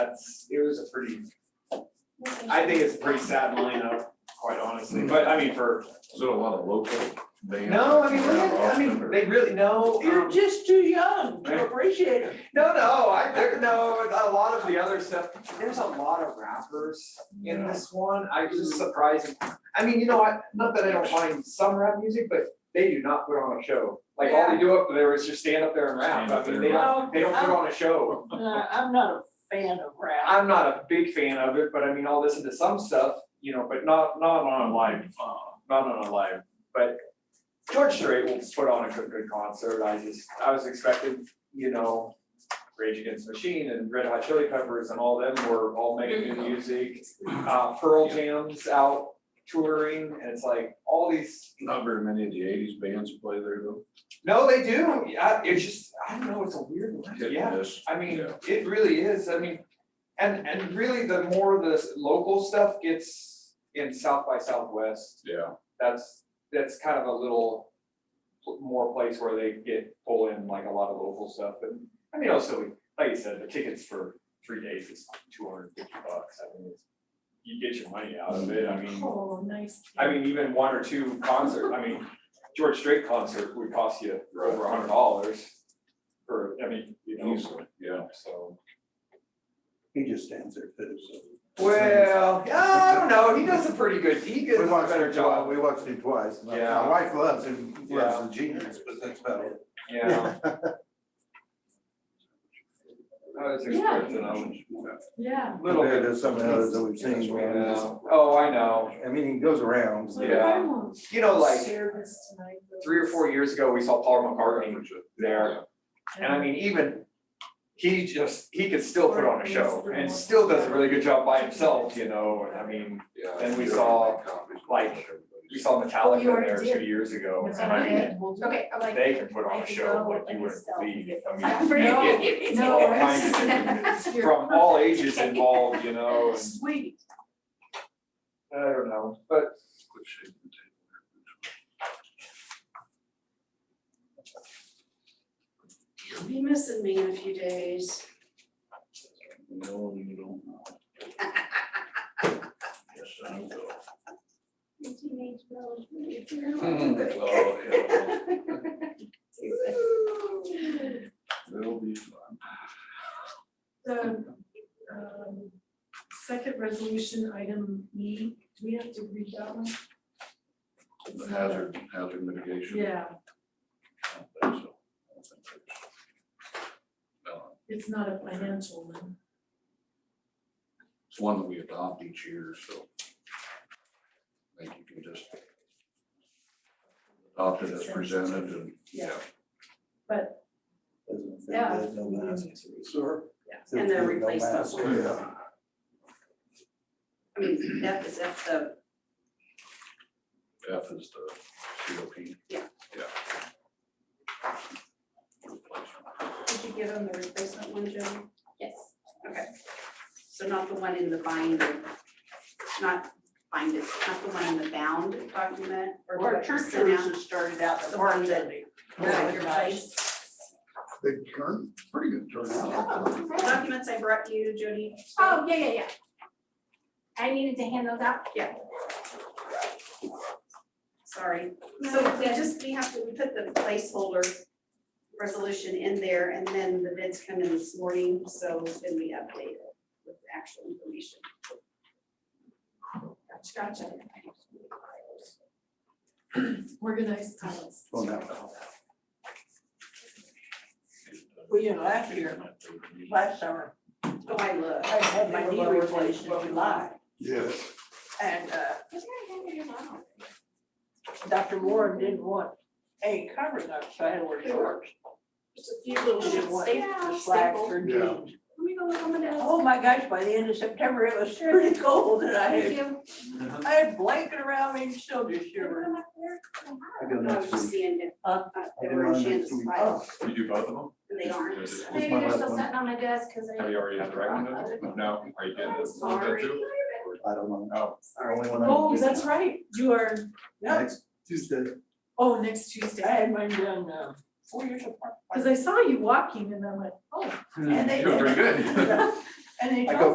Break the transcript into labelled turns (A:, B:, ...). A: that's, it was a pretty, I think it's a pretty sad lineup, quite honestly, but I mean, for,
B: Is it a lot of local bands?
A: no, I mean, look at- I mean, they really, no,
C: You're
A: um,
C: just too young to appreciate it.
A: no, no, I, there- no, a lot of the other stuff, there's a lot of rappers in
B: Yeah.
A: this one, I was just surprised. I mean, you know what, not that I don't mind some rap music, but they do not put on a show, like, all they do up there is just stand up there and rap,
B: Stand up
A: I mean,
B: there
A: they
B: and
A: don't, they don't put on a show.
C: Uh, I'm not a fan of rap.
A: I'm not a big fan of it, but I mean, I'll listen to some stuff, you know, but not, not on a live, uh, not on a live, but George Strait will put on a good, good concert, I just, I was expecting, you know, Rage Against the Machine and Red Hot Chili Peppers and all them were all making new music. Uh, Pearl Jam's out touring, and it's like, all these,
B: Not very many of the eighties bands play there though.
A: no, they do, yeah, it's just, I don't know, it's a weird one,
B: Hit and
A: yeah.
B: miss.
A: I mean,
B: Yeah.
A: it really is, I mean, and, and really the more the s- local stuff gets in South by Southwest,
B: Yeah,
A: that's, that's kind of a little pl- more place where they get pull in like a lot of local stuff, and, I mean, also, like you said, the tickets for three days is two hundred and fifty bucks, I mean, it's, you get your money out of it, I mean,
C: Oh, nice.
A: I mean, even one or two concert, I mean, George Strait concert would cost you over a hundred dollars for, I mean, you know,
B: easily, yeah.
A: so.
D: He just stands there too, so.
A: Well, I don't know, he does a pretty good, he does
D: We
A: a
D: watched
A: better
D: him twice,
A: job,
D: we watched him twice. My-
A: Yeah.
D: My wife loves him,
A: Yeah.
D: loves the genius, but that's about it.
A: yeah. I was expecting a
C: Yeah.
A: little
D: Compared
A: bit.
D: to some of the others that we've seen. where it's just-
A: Yeah. Oh, I know,
D: I mean, he goes around.
C: So
A: Yeah.
C: I won't
A: you know, like,
C: share this tonight, but-
A: three or four years ago, we saw Paul McCartney there, and I mean, even. He just, he could still put on a show, and still does a really good job by himself, you know, and I mean,
B: Yeah.
A: Then we saw, like, we saw Metallica
E: You already
A: there
E: did.
A: two years ago,
E: That's
A: and I
E: what
A: mean.
E: I Okay, I'm like.
A: They can put on a show like you wouldn't believe, I
E: I'm
A: mean,
E: pretty-
A: you get
E: No,
A: all
E: it's
A: kinds of
E: just- you're
A: from all
E: perfect.
A: ages involved, you know, and
C: Sweet.
A: I don't know, but
C: You'll be missing me in a few days.
B: No, you don't. Yes, I will.
E: Teenage girls.
B: Oh, yeah, It'll be fun.
E: The, um, second resolution, item E, do we have to read that one?
B: The hazard, hazard mitigation.
E: Yeah,
B: I don't think so. I don't think so. No,
E: it's not a financial one.
B: It's one that we adopt each year, so. I think you can just adopt it as presented and, yeah.
D: Doesn't fit,
E: Yeah.
D: there's no
E: we
D: mask.
E: need to read.
D: Sure.
F: Yeah.
C: And the
D: There's no
C: replacement
D: mask.
C: one.
D: Yeah.
C: I mean, that is, that's the,
B: F is the COP.
C: Yeah.
B: Yeah.
C: did you get on the replacement one, Joe?
E: Yes.
C: Okay. So not the one in the binder, not bind it, not the one in the bound document or
F: Or
C: what you
F: church
C: sent out.
F: services started out
C: The
F: the
C: one
F: barn
C: that-
F: Sunday.
C: Right, your place.
B: Big turn, pretty good turnout.
C: Documents I brought to you, Jody.
E: Oh, yeah, yeah, yeah. I needed to hand those out.
C: Sorry. So we just, we have to, we put the placeholder resolution in there and then the bids come in this morning, so then we update it with the actual information.
E: Gotcha, gotcha. Organized
C: uh,
E: tiles.
D: Well, now,
F: Well, you know, last year, last summer,
C: Oh, I look.
F: I had my knee replaced in July.
D: Yes.
F: And uh, Dr. Warren didn't want any covers on, so I had to wear shorts.
C: Just a few little
F: She didn't
C: shits,
F: want
C: staple,
F: slacks
C: staple.
F: or
D: Yeah.
F: jeans.
C: Let me go look on the desk.
F: Oh my gosh, by the end of September, it was pretty cold and I
C: Thank
F: had,
C: you.
F: I had blanket around me and still just shivered.
D: I go
C: No, I was
D: next
C: just
D: week.
C: seeing it.
F: Huh?
C: Uh,
D: I
C: They
D: do
C: were
D: mine
C: in
D: next
C: Shanda's
D: week.
C: file,
B: You do both of them?
C: and they aren't.
D: What's
E: Maybe
D: my
E: they're
D: last
E: still
D: one? Oh,
E: sitting on my desk because I.
A: have you already had the recommendation? No, are you getting
C: I'm
A: this? one done
C: sorry.
A: too?
D: I don't know.
A: Oh,
D: The only one I
E: Oh,
D: can do.
E: that's right, you are,
F: No,
D: Next Tuesday.
E: oh, next
F: I
E: Tuesday,
F: had mine done uh, four years apart.
E: because I saw you walking and I'm like, oh,
F: And they,
A: You're doing
F: and
A: good.
G: And they
F: I
G: talked
F: go